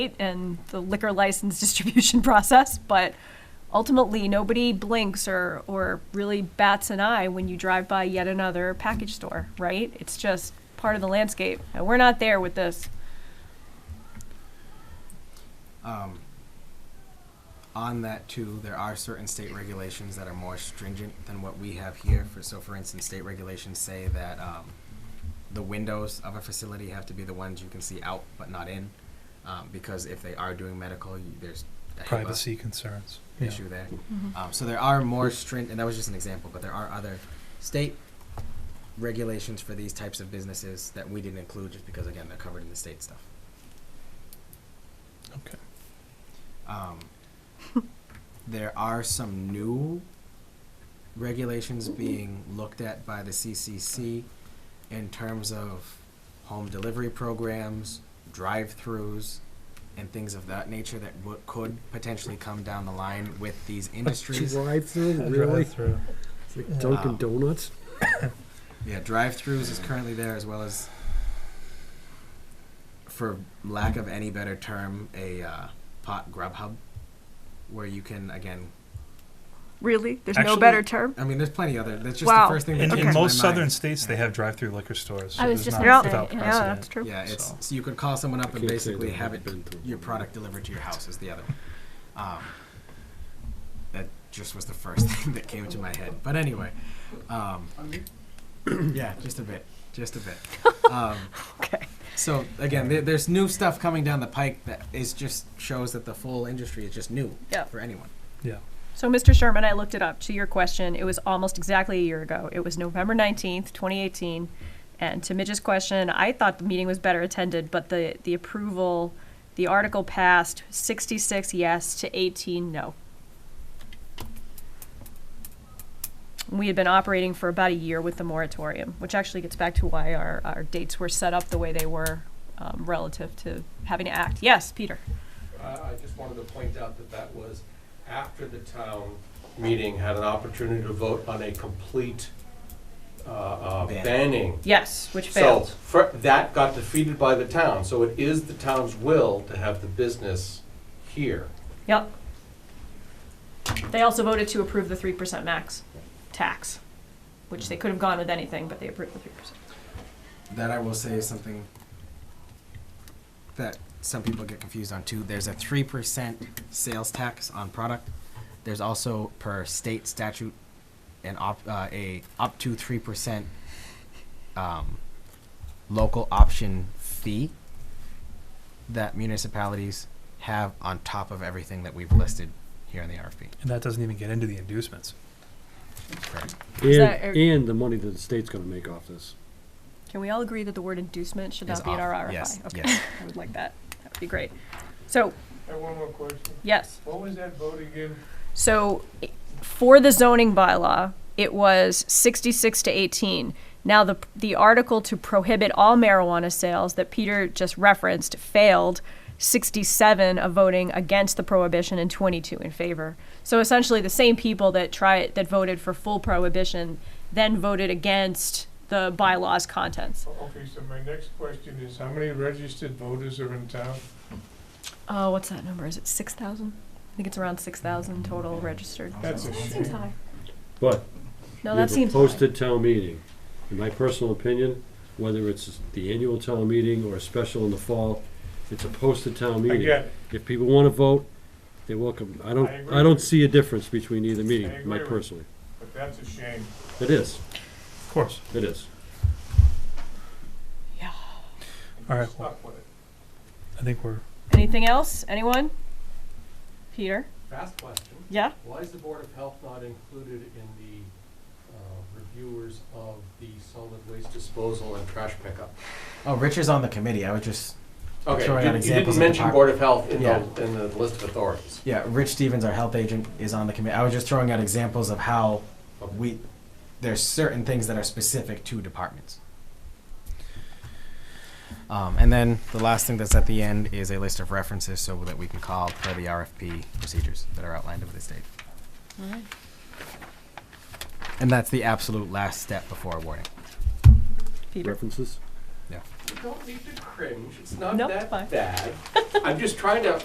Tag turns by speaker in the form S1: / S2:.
S1: and the liquor license distribution process, but ultimately, nobody blinks or, or really bats an eye when you drive by yet another package store, right? It's just part of the landscape, and we're not there with this.
S2: Um, on that too, there are certain state regulations that are more stringent than what we have here. For, so for instance, state regulations say that, um, the windows of a facility have to be the ones you can see out but not in. Um, because if they are doing medical, you, there's a HIPAA
S3: privacy concerns. Yeah.
S2: issue there. Um, so there are more stringent, and that was just an example, but there are other state regulations for these types of businesses that we didn't include just because, again, they're covered in the state stuff.
S3: Okay.
S2: Um, there are some new regulations being looked at by the CCC in terms of home delivery programs, drive-throughs, and things of that nature that w- could potentially come down the line with these industries.
S4: Drive through,
S3: A
S4: really?
S3: drive-through.
S4: It's like Dunkin'
S2: Um,
S4: Donuts?
S2: Yeah, drive-throughs is currently there as well as, for lack of any better term, a uh, pot grub hub, where you can again.
S5: Really? There's no
S3: Actually-
S5: better term?
S2: I mean, there's plenty other. That's just
S5: Wow.
S2: the first thing that
S3: In,
S2: came
S3: in
S2: to
S3: most
S2: my
S3: southern
S2: mind.
S3: states, they have drive-through liquor stores.
S1: I
S3: so
S1: was
S3: there's
S1: just
S3: not
S1: gonna
S3: without
S1: say,
S3: precedent.
S1: yeah,
S5: Yeah, that's true.
S2: Yeah, it's so.
S3: So-
S2: you could call someone up and
S4: Can't say
S2: basically
S4: that
S2: have
S4: I've
S2: it
S4: been to
S2: your
S4: one.
S2: product delivered to your house is the other. Um, that just was the first thing that came to my head. But anyway, um, yeah, just a bit, just a bit. Um,
S1: Okay.
S2: So again, there, there's new stuff coming down the pike that is just shows that the full industry is just new
S1: Yeah.
S2: for anyone.
S3: Yeah.
S1: So, Mr. Sherman, I looked it up. To your question, it was almost exactly a year ago. It was November 19th, 2018. And to Midge's question, I thought the meeting was better attended, but the, the approval, the article passed 66 yes to 18 no. We had been operating for about a year with the moratorium, which actually gets back to why our, our dates were set up the way they were um, relative to having to act. Yes, Peter.
S6: I I just wanted to point out that that was after the town meeting had an opportunity to vote on a complete uh, uh,
S2: Ban.
S6: banning.
S1: Yes, which
S6: So
S1: failed.
S6: fir- that got defeated by the town, so it is the town's will to have the business here.
S1: Yep. They also voted to approve the three percent max tax, which
S2: Mm-hmm.
S1: they could have gone with anything, but they approved the three percent.
S2: That I will say is something that some people get confused on too. There's a three percent sales tax on product. There's also per state statute an op, uh, a up to three percent um, local option fee that municipalities have on top of everything that we've listed here in the RFP.
S3: And that doesn't even get into the inducements.
S1: Is that
S4: And, and the money that the state's gonna make off this.
S1: Can we all agree that the word inducement should
S2: Is
S1: not be in our
S2: off.
S1: RFI?
S2: Yes,
S1: Okay,
S2: yes.
S1: I would like that. That would be great. So,
S7: I have one more question.
S1: yes.
S7: What was that vote again?
S1: So i- for the zoning bylaw, it was 66 to 18. Now, the, the article to prohibit all marijuana sales that Peter just referenced failed 67 of voting against the prohibition and 22 in favor. So essentially, the same people that try that voted for full prohibition then voted against the bylaw's contents.
S7: O- Okay, so my next question is, how many registered voters are in town?
S1: Oh, what's that number? Is it 6,000? I think it's around 6,000 total registered.
S7: That's a
S5: Seems
S7: shame.
S5: high.
S4: But
S1: No,
S4: you
S1: that
S4: have a
S1: seems high.
S4: posted town meeting. In my personal opinion, whether it's the annual town meeting or a special in the fall, it's a posted town
S7: I
S4: meeting.
S7: get it.
S4: If people wanna vote, they're welcome. I don't,
S7: I agree
S4: I don't
S7: with you.
S4: see a difference between either
S7: I
S4: meeting,
S7: agree
S4: my
S7: with you.
S4: personally.
S7: but that's a shame.
S4: It is,
S3: Of course.
S4: it is.
S3: All right, well,
S7: Stuck with it.
S3: I think we're,
S1: Anything else? Anyone? Peter?
S6: Fast question,
S1: Yeah?
S6: why is the Board of Health not included in the uh, reviewers of the solid waste disposal and trash pickup?
S2: Oh, Rich is on the committee. I would just
S6: Okay,
S2: Throwing out
S6: you- you
S2: examples
S6: didn't
S2: of the
S6: mention
S2: park.
S6: Board of Health in
S2: Yeah.
S6: the, in the list of authorities.
S2: Yeah, Rich Stevens, our health agent, is on the committee. I was just throwing out examples of how we, there's certain things that are specific to departments. Um, and then the last thing that's at the end is a list of references so that we can call for the RFP procedures that are outlined over the state. And that's the absolute last step before awarding.
S1: Peter?
S4: References?
S2: Yeah.
S6: You don't need to cringe, it's not
S1: Nope,
S6: that
S1: fine.
S6: bad. I'm just trying to